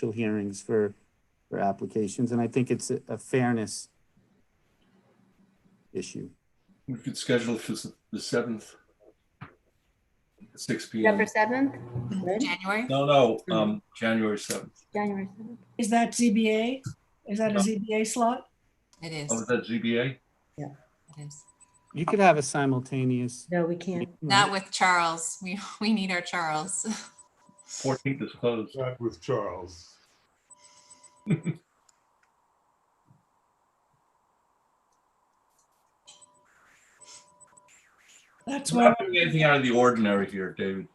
special hearings for, for applications, and I think it's a a fairness issue. We could schedule for s- the seventh. Six P November M. 7th, January? No, no, um, January seventh. January 7th. Is that ZBA? Is that a ZBA slot? It is, Oh, is that ZBA? it is. You could have a simultaneous. No, we can't. Not with Charles. We, we need our Charles. Fourteenth is closed. Not with Charles. That's We're why, not doing anything out of the ordinary here, David.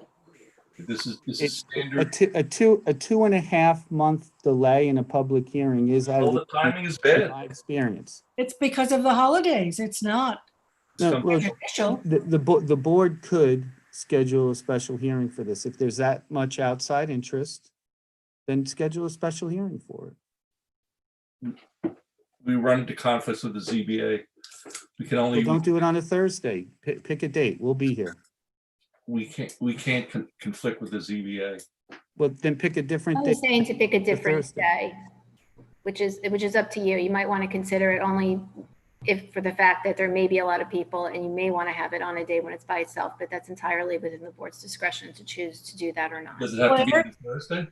This is, this is A standard. two, a two, a two and a half month delay in a public hearing is out All of the the- timing is bad. my experience. it's because of the holidays. It's not It's No, come- well, official. the, the, bo- the board could schedule a special hearing for this. If there's that much outside interest, then schedule a special hearing for it. We run into conflicts with the ZBA. We can But only, don't do it on a Thursday. Pick, pick a date. We'll be here. we can't, we can't con- conflict with the ZBA. Well, then pick a different I was date. Oh, saying to pick a different Thursday. day, which is, which is up to you. You might want to consider it only if, for the fact that there may be a lot of people and you may want to have it on a day when it's by itself, but that's entirely within the board's discretion to choose to do that or not. Does it have to be on Thursday?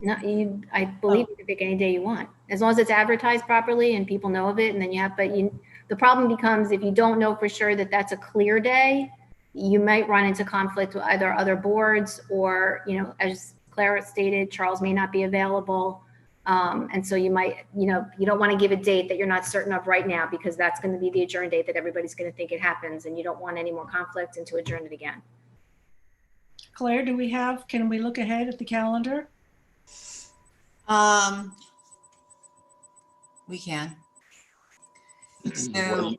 No, you, I believe you can pick any day you want, as long as it's advertised properly and people know of it, and then you have, but you, the problem becomes if you don't know for sure that that's a clear day, you might run into conflict with either other boards or, you know, as Clara stated, Charles may not be available. Um, and so you might, you know, you don't want to give a date that you're not certain of right now because that's going to be the adjourn date that everybody's going to think it happens and you don't want any more conflict and to adjourn it again. Claire, do we have, can we look ahead at the calendar? Um, we can. So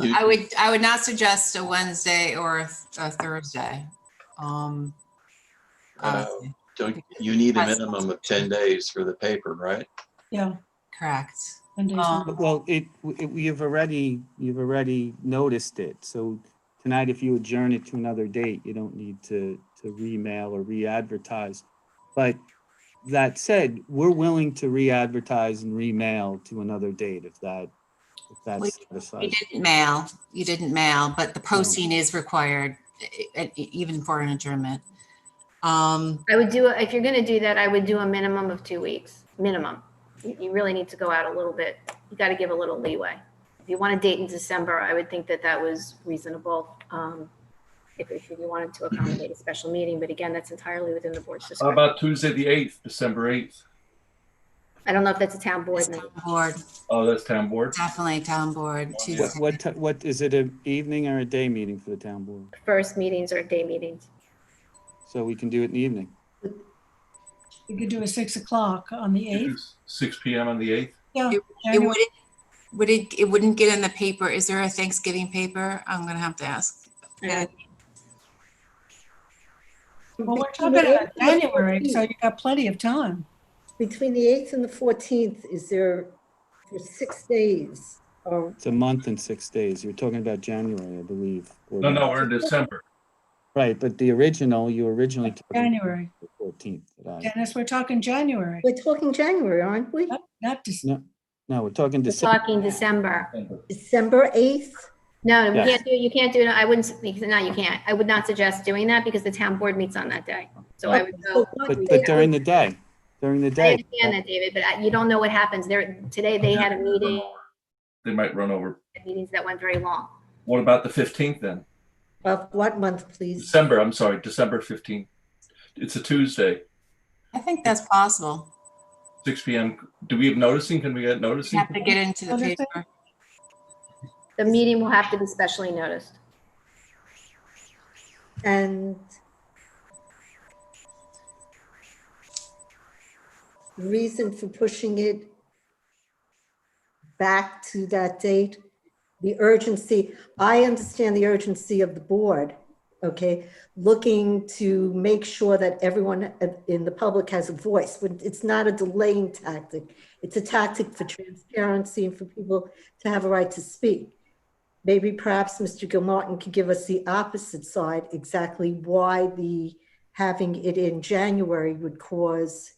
I would, I would not suggest a Wednesday or a a Thursday. Um, Uh, honestly. Don't, you need a That's- minimum of ten days for the paper, right? Yeah. correct. and days. Um, But, Well, it, it, we have already, you've already noticed it. So tonight, if you adjourn it to another date, you don't need to, to remail or re-advertise. But that said, we're willing to re-advertise and remail to another date if that, if We- that's You satisfied. didn't mail, you didn't mail, but the posting is required e- e- even for an adjournment. Um, I would do, if you're gonna do that, I would do a minimum of two weeks, minimum. You, you really need to go out a little bit, you gotta give a little leeway. If you want a date in December, I would think that that was reasonable, um, if, if you wanted to accommodate a special meeting, but again, that's entirely within the board's How discretion. about Tuesday, the eighth, December eighth? I don't know if that's a town board it's meeting. town board, Oh, that's town board. definitely town board. What, Tuesday. what, ti- what, is it an evening or a day meeting for the town board? First meetings or day meetings. So we can do it in the evening. We could do a six o'clock on the eighth. Six P M on the eighth? It wouldn't, would it, it wouldn't get in the paper. Is there a Thanksgiving paper? I'm gonna have to ask. Yeah. Well, we're talking about January, so you got plenty of time. Between the 8th and the 14th, is there, for six days, uh, or It's a month and six days. You're talking about January, I believe. or No, no, not. we're in December. Right, but the original, you originally. talked about January. the Fourteenth. that I- Dennis, we're talking January, we're talking January, aren't we? not- not December. No, we're talking We're December. talking December. December 8th? No, you Yes. can't do, you can't do, it. I wouldn't, no, you can't. I would not suggest doing that because the town board meets on that day. So I would go. But, but during the day, during the um, I day. understand that, David, but I- you don't know what happens. There, today they had a meeting, They might run over. meetings that went very long. What about the fifteenth then? Of what month, please? December, I'm sorry, December fifteenth. It's a Tuesday, I think that's possible. six P M. Do we have noticing? Can we get We noticing? have to get into the Understand. paper. The meeting will have to be specially noticed. And the reason for pushing it back to that date, the urgency, I understand the urgency of the board, okay? Looking to make sure that everyone in the public has a voice, but it's not a delaying tactic. It's a tactic for transparency and for people to have a right to speak maybe perhaps Mr. Gilmartin could give us the opposite side, exactly why the having it in January would cause